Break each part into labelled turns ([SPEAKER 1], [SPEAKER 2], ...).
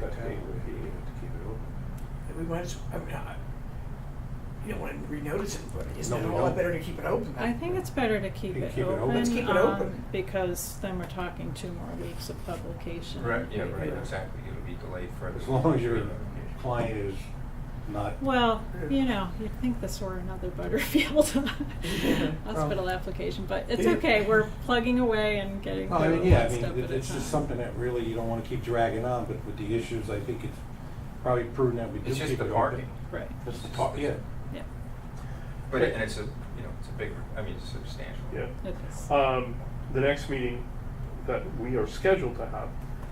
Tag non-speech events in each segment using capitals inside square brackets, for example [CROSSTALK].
[SPEAKER 1] cut date would be to keep it open.
[SPEAKER 2] We might, as- I mean, I, you don't want to renotice it, but isn't
[SPEAKER 1] No,
[SPEAKER 2] it
[SPEAKER 1] we
[SPEAKER 2] a lot
[SPEAKER 1] don't.
[SPEAKER 2] better to keep it open?
[SPEAKER 3] I think it's better to keep
[SPEAKER 1] Keep
[SPEAKER 3] it
[SPEAKER 1] it open.
[SPEAKER 3] open.
[SPEAKER 1] Let's
[SPEAKER 2] keep it
[SPEAKER 3] um,
[SPEAKER 2] open.
[SPEAKER 3] Because then we're talking two more weeks of publication.
[SPEAKER 1] Right.
[SPEAKER 4] Yeah, right,
[SPEAKER 1] Yeah.
[SPEAKER 4] exactly, it'll be delayed further.
[SPEAKER 1] As long as your client is not.
[SPEAKER 3] Well, you know, you'd think this were another Butterfield [LAUGHS] hospital
[SPEAKER 1] Well-
[SPEAKER 3] application, but it's
[SPEAKER 1] Yeah.
[SPEAKER 3] okay, we're plugging away and getting
[SPEAKER 1] Well, I
[SPEAKER 3] through
[SPEAKER 1] mean,
[SPEAKER 3] one
[SPEAKER 1] yeah, I
[SPEAKER 3] step
[SPEAKER 1] mean,
[SPEAKER 3] at a
[SPEAKER 1] it- it's just
[SPEAKER 3] time.
[SPEAKER 1] something that really you don't wanna keep dragging on, but with the issues, I think it's probably prudent that we do
[SPEAKER 4] It's
[SPEAKER 1] keep
[SPEAKER 4] just
[SPEAKER 1] it
[SPEAKER 4] the
[SPEAKER 1] open.
[SPEAKER 4] parking,
[SPEAKER 3] Right,
[SPEAKER 1] It's the par- yeah.
[SPEAKER 3] yeah,
[SPEAKER 4] but, it- and it's a, you know, it's a big, I mean, it's substantial.
[SPEAKER 5] Yeah.
[SPEAKER 3] it is.
[SPEAKER 1] Uh,
[SPEAKER 5] Um, the next meeting that we are scheduled to have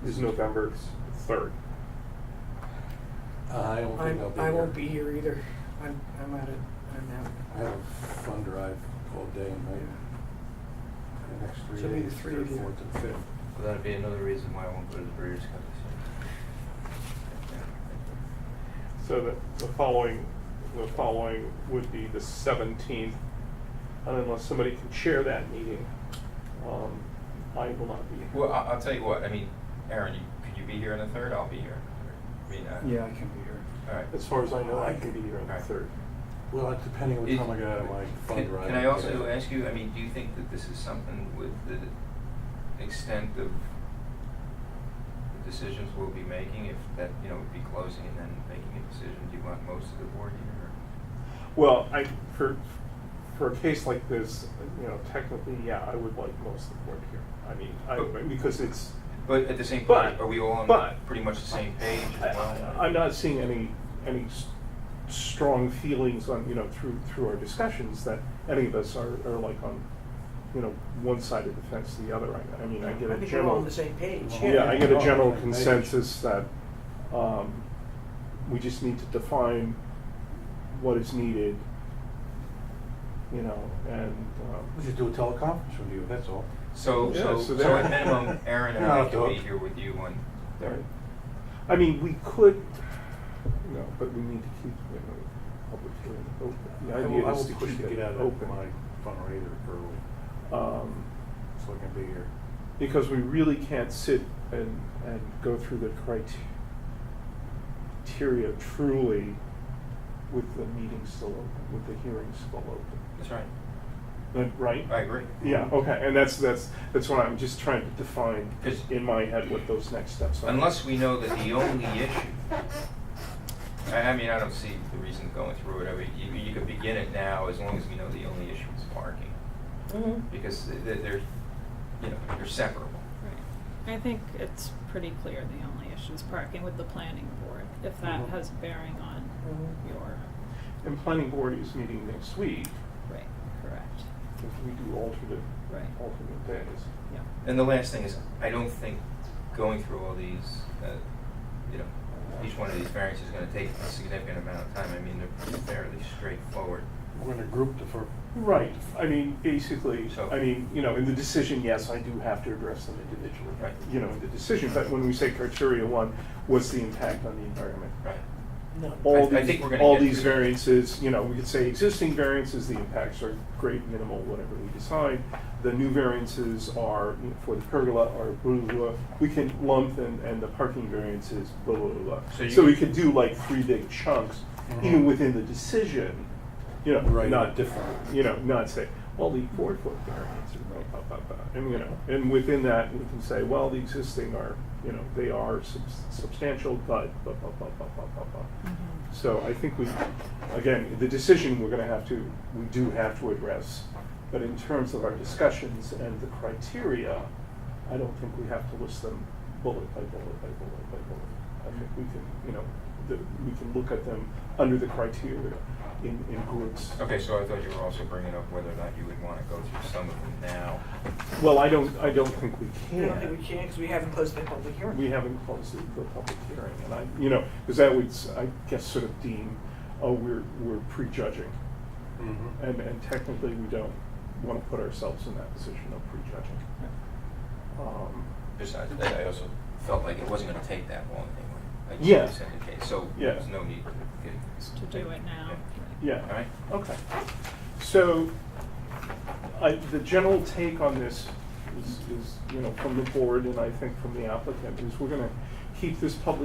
[SPEAKER 5] is November third.
[SPEAKER 1] Uh, I don't
[SPEAKER 2] I'm,
[SPEAKER 1] think I'll be
[SPEAKER 2] I
[SPEAKER 1] here.
[SPEAKER 2] won't be here either. I'm, I'm out of, I'm
[SPEAKER 1] I
[SPEAKER 2] out.
[SPEAKER 1] have a fun drive all day and night. The next three
[SPEAKER 2] So maybe
[SPEAKER 1] days,
[SPEAKER 2] three
[SPEAKER 1] third,
[SPEAKER 2] of you.
[SPEAKER 1] fourth, and fifth.
[SPEAKER 4] So that'd be another reason why I won't go to the Breeders' Cup this year.
[SPEAKER 5] So that the following, the following would be the seventeenth, and unless somebody can chair that meeting, um, I will not be here.
[SPEAKER 4] Well, I, I'll tell you what, I mean, Aaron, you, could you be here on the third? I'll be here on the third. I mean, uh,
[SPEAKER 6] Yeah, I can be here.
[SPEAKER 4] all right.
[SPEAKER 5] As far as I know, I can be here on the
[SPEAKER 4] Alright.
[SPEAKER 5] third.
[SPEAKER 1] Well, it's depending on what
[SPEAKER 4] Is-
[SPEAKER 1] time I get out of my fun
[SPEAKER 4] Can-
[SPEAKER 1] drive.
[SPEAKER 4] Can I also
[SPEAKER 1] Yeah.
[SPEAKER 4] ask you, I mean, do you think that this is something with the extent of the decisions we'll be making, if that, you know, would be closing and then making a decision, do you want most of the board here? or-
[SPEAKER 5] Well, I, for, for a case like this, you know, technically, yeah, I would like most of the board here. I mean, I, because it's,
[SPEAKER 4] But at the same
[SPEAKER 5] But-
[SPEAKER 4] point, are we all on
[SPEAKER 5] but-
[SPEAKER 4] pretty much the same page as
[SPEAKER 5] I-
[SPEAKER 4] well?
[SPEAKER 5] I- I'm not seeing any, any s- strong feelings on, you know, through, through our discussions that any of us are, are like on, you know, one side of the fence to the other. I, I mean, I get
[SPEAKER 2] I
[SPEAKER 5] a
[SPEAKER 2] think we're all on
[SPEAKER 5] general,
[SPEAKER 2] the same page, yeah.
[SPEAKER 5] yeah, I get a general
[SPEAKER 1] Yeah.
[SPEAKER 5] consensus that, um, we just need to define what is needed, you know, and,
[SPEAKER 1] We
[SPEAKER 5] um,
[SPEAKER 1] should do a teleconference with you, that's all.
[SPEAKER 4] So,
[SPEAKER 5] Yeah,
[SPEAKER 4] so,
[SPEAKER 5] so
[SPEAKER 4] so at
[SPEAKER 5] that-
[SPEAKER 4] minimum, Aaron and
[SPEAKER 1] No,
[SPEAKER 4] I can
[SPEAKER 1] don't.
[SPEAKER 4] be here with you on
[SPEAKER 5] there. I mean, we could, you know, but we need to keep, you know, public hearing open. The
[SPEAKER 1] I
[SPEAKER 5] idea
[SPEAKER 1] will, I
[SPEAKER 5] is
[SPEAKER 1] will
[SPEAKER 5] to
[SPEAKER 1] push
[SPEAKER 5] keep
[SPEAKER 1] to
[SPEAKER 5] it
[SPEAKER 1] get out of
[SPEAKER 5] open.
[SPEAKER 1] my fundraiser early,
[SPEAKER 5] um,
[SPEAKER 1] so I can be here.
[SPEAKER 5] because we really can't sit and, and go through the criteria truly with the meeting still open, with the hearing still open.
[SPEAKER 4] That's right.
[SPEAKER 5] Then- Right?
[SPEAKER 4] I agree.
[SPEAKER 5] Yeah, okay, and that's, that's, that's what I'm just trying to define
[SPEAKER 4] 'Cause-
[SPEAKER 5] in my head what those next steps are.
[SPEAKER 4] Unless we know that the only issue, I, I mean, I don't see the reason going through it. I mean, you, you could begin it now as long as we know the only issue is parking. Because th- th- they're, you know, they're separable.
[SPEAKER 3] Right. I think it's pretty clear the only issue is parking with the planning board, if that
[SPEAKER 1] Mhm.
[SPEAKER 3] has bearing on
[SPEAKER 1] Mm-hmm.
[SPEAKER 2] Mhm.
[SPEAKER 3] your,
[SPEAKER 5] And planning board is meeting next week,
[SPEAKER 3] right, correct,
[SPEAKER 5] if we do alternate,
[SPEAKER 3] Right.
[SPEAKER 1] Oh.
[SPEAKER 5] alternate days.
[SPEAKER 3] yeah.
[SPEAKER 4] And the last thing is, I don't think going through all these, uh, you know, each one of these variants is gonna take a significant amount of time. I mean, they're fairly straightforward.
[SPEAKER 1] We're gonna group the fir-
[SPEAKER 5] Right, I mean, basically,
[SPEAKER 4] So-
[SPEAKER 5] I mean, you know, in the decision, yes, I do have to address them individually.
[SPEAKER 4] Right.
[SPEAKER 5] You know, in the decision, but when we say criteria one, what's the impact on the environment?
[SPEAKER 4] Right.
[SPEAKER 2] No.
[SPEAKER 5] All
[SPEAKER 4] I- I think
[SPEAKER 5] these,
[SPEAKER 4] we're gonna
[SPEAKER 5] all
[SPEAKER 4] get
[SPEAKER 5] these
[SPEAKER 4] through that.
[SPEAKER 5] variances, you know, we could say existing variances, the impacts are great, minimal, whatever we decide. The new variances are, you know, for the pergola are blah, blah, blah. We can lump and, and the parking variances, blah, blah, blah,
[SPEAKER 4] So
[SPEAKER 5] blah.
[SPEAKER 4] you Mm-hmm.
[SPEAKER 5] So we
[SPEAKER 4] could-
[SPEAKER 5] could do like three big chunks,
[SPEAKER 1] Mhm.
[SPEAKER 5] even within the decision, you know,
[SPEAKER 1] Right.
[SPEAKER 5] not different, you know, not say, well, the four foot variance and blah, blah, blah, blah. And, you know, and within that, we can say, well, the existing are, you know, they are subs- substantial, but blah, blah, blah, blah, blah, blah, blah. So I think we, again, the decision we're gonna have to, we do have to address. But in terms of our discussions and the criteria, I don't think we have to list them bullet by bullet by bullet by bullet. I think we can, you know, the, we can look at them under the criteria in, in groups.
[SPEAKER 4] Okay, so I thought you were also bringing up whether or not you would wanna go through some of them now.
[SPEAKER 5] Well, I don't, I don't think we
[SPEAKER 2] I
[SPEAKER 5] can.
[SPEAKER 2] don't think we can, because we haven't closed the public hearing.
[SPEAKER 5] We haven't closed the, the public hearing, and I, you know, because that would, s- I guess, sort of deem, oh, we're, we're prejudging.
[SPEAKER 1] Mhm.
[SPEAKER 5] And, and technically, we don't want to put ourselves in that position of prejudging. Um,
[SPEAKER 4] Besides that, I also felt like it wasn't gonna take that long anyway. Like you
[SPEAKER 5] Yeah.
[SPEAKER 4] said in the case, so
[SPEAKER 5] Yeah.
[SPEAKER 4] there's no need to get.
[SPEAKER 3] Just to do it now.
[SPEAKER 5] Yeah.
[SPEAKER 4] Alright.
[SPEAKER 5] Okay. So, I, the general take on this is, is, you know, from the board and I think from the applicant, is we're gonna keep this public